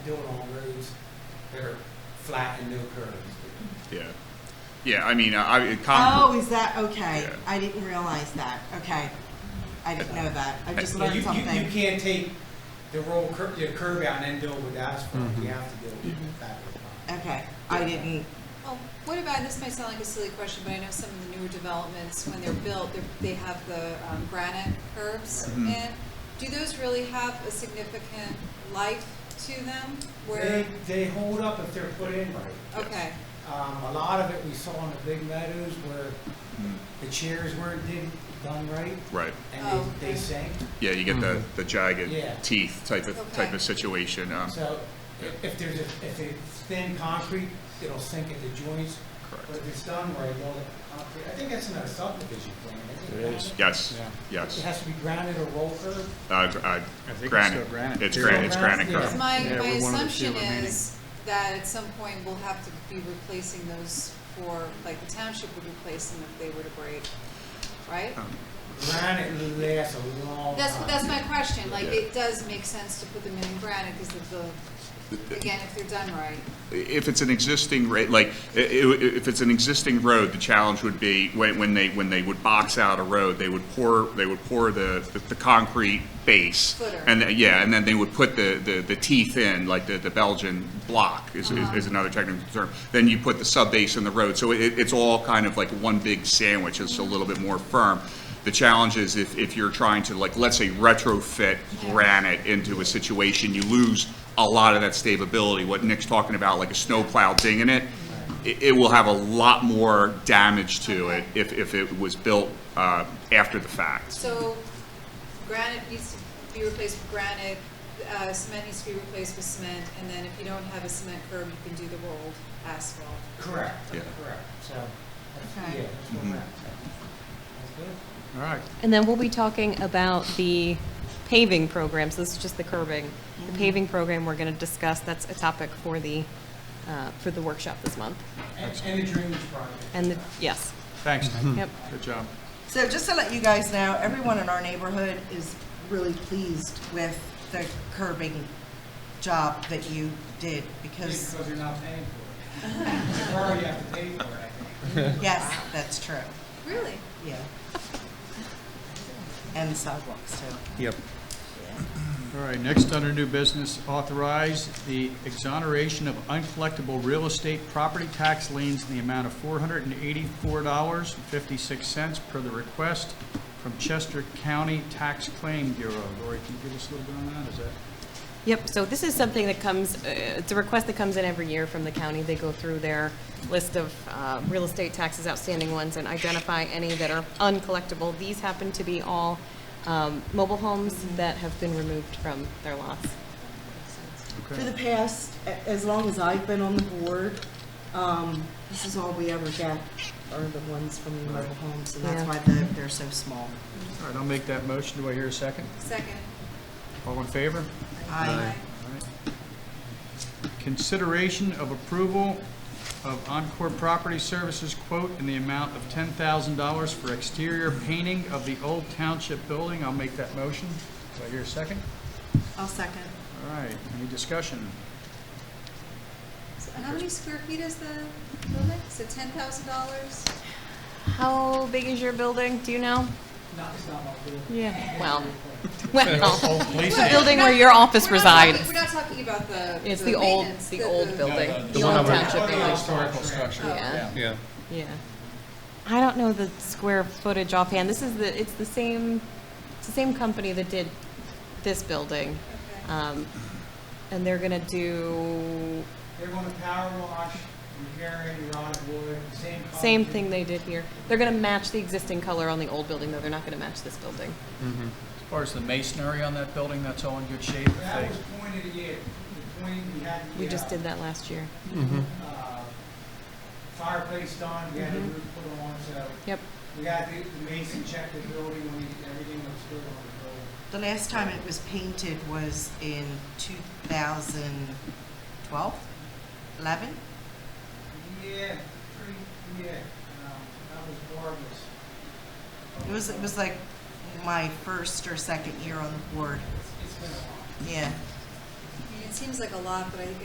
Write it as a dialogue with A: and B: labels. A: doing on roads that are flat and no curves.
B: Yeah, yeah. I mean, I, I
C: Oh, is that, okay,
B: Yeah.
C: I didn't realize that, okay. I didn't know that, I just
A: You-
C: learned
A: you- You, you
C: something.
A: can't take the roll curve, your curve out and then deal with asphalt, you have to deal
C: Mhm.
A: with
D: Mm-hmm.
A: that.
D: Uh,
C: Okay, I didn't,
D: Oh, what about, this might sound like a silly question, but I know some of the newer developments, when they're built, they're- they have the um, granite curves
B: Mhm.
D: in. Do those really have a significant life to them? Where,
A: They, they hold up if they're put in right.
D: okay,
A: Um, a lot of it we saw in the big meadows where
D: Oh.
B: Mm,
A: the chairs weren't did, done right
B: right.
A: and
D: Oh,
A: they, they
D: okay.
A: sank.
B: Yeah, you get the,
E: Mm-hmm.
B: the jagged
A: Yeah.
B: teeth type of type
D: Okay.
B: of situation. Um,
A: So if, if there's a, if it's thin concrete, it'll sink at the joints, but
B: correct.
A: if it's done right, all the concrete, I think that's another subdivision plan, isn't it?
E: There is.
B: Yes,
E: Yeah.
A: It
B: yes.
A: has to be granite or roll curve.
B: Uh, gr- uh,
E: I think it's still
B: granite.
E: granite.
B: It's
A: It's
B: granite.
A: all
B: It's
A: granite,
B: granite.
A: yeah.
B: curve.
D: because my,
E: Yeah,
D: my
E: we're one of the
D: assumption
E: few remaining.
D: is that at some point we'll have to be replacing those for, like the township would replace them if they were to break, right?
A: Granite lasts a long
D: That's,
A: time.
D: that's my question, like,
B: Yeah.
D: it does make sense to put them in granite because of the, again, if they're done right.
B: If it's an existing ra- like i- i- if it's an existing road, the challenge would be when, when they when they would box out a road, they would pour they would pour the the, the concrete base
D: Footer.
B: and th- yeah, and then they would put the the, the teeth in like the, the Belgian block is, is, is another technical term. Then you put the sub base in the road, so it, it's all kind of like one big sandwich. It's a little bit more firm. The challenge is if, if you're trying to like let's say retrofit
D: Yeah.
B: granite granite into a situation, you lose a lot of that stability. What Nick's talking about, like a snowplow dinging it, it, it will have a lot more damage to it if, if it was built, uh, after the fact.
D: So granite needs to be replaced with granite, uh, cement needs to be replaced with cement, and then if you don't have a cement curb, you can do the rolled asphalt.
A: Correct,
B: Yeah.
A: correct, so, that's-
D: Okay.
A: yeah, that's where
B: Mhm.
A: we're at. That's good.
E: All right.
F: And then we'll be talking about the paving program, so this is just the curbing. The paving program we're going to discuss, that's a topic for the, uh, for the workshop this month.
A: And, and the drainage project.
F: And the, yes,
E: Thanks.
F: yep.
E: Good job.
C: so just to let you guys know, everyone in our neighborhood is really pleased with the curbing job that you did,
A: Just
C: because,
A: Because you're not paying for it. You're already have to pay for it, I think.
C: yes, that's true,
D: Really?
C: yeah. And the sidewalks too.
E: Yep. All right, next under new business, authorize the exoneration of uncollectible real estate property tax liens in the amount of four hundred and eighty-four dollars and fifty-six cents per the request from Chester County Tax Claim Bureau. Lori, can you give us a little bit on that? Is that?
F: Yep, so this is something that comes, uh, it's a request that comes in every year from the county. They go through their list of uh, real estate taxes, outstanding ones, and identify any that are uncollectible. These happen to be all um, mobile homes that have been removed from their lots.
C: For the past, a- as long as I've been on the board, um, this is all we ever get are the ones from the mobile homes, and that's
F: Yeah.
C: why they're, they're so small.
E: All right, I'll make that motion. Do I hear a second?
D: Second.
E: All in favor?
C: I,
E: Consideration of approval of Encore Property Services quote in the amount of ten thousand dollars for exterior painting of the old township building. I'll make that motion. Do I hear a second?
C: I'll second.
E: All right, any discussion?
D: So How many square feet is the building? So ten thousand dollars?
F: How big is your building? Do you know?
A: Not, it's not my fault.
F: Yeah. Well, well,
E: Police
F: it's the building where your office resides.
D: We're not talking about the.
F: It's the old,
D: maintenance,
F: the old building,
E: no,
F: the
E: one
F: old
E: over-
F: township building,
E: Historical structure.
F: yeah,
E: Yeah.
F: yeah. I don't know the square footage offhand. This is the, it's the same, it's the same company that did this building.
D: Okay.
F: Um, and they're gonna do
A: They're gonna power wash, repair any rotted wood, same. color.
F: same thing they did here. They're gonna match the existing color on the old building, though. They're not gonna match this building.
E: As far as the masonry on that building, that's all in good shape, I
A: That was
E: think.
A: pointed, yeah, the point we had.
F: We just
A: the, uh,
F: did that last year.
A: uh, Fireplace done, we had a
F: Mm-hmm.
A: roof put on, so
F: Yep.
A: we had the the mason check the building, we, everything was good on the building.
C: The last time it was painted was in 2012, 11?
A: Yeah, pretty, yeah, um, that was marvelous.
C: It was, it was like my first or second year on the board,
A: It's been a while.
C: yeah.
D: I mean, it seems like a lot, but I,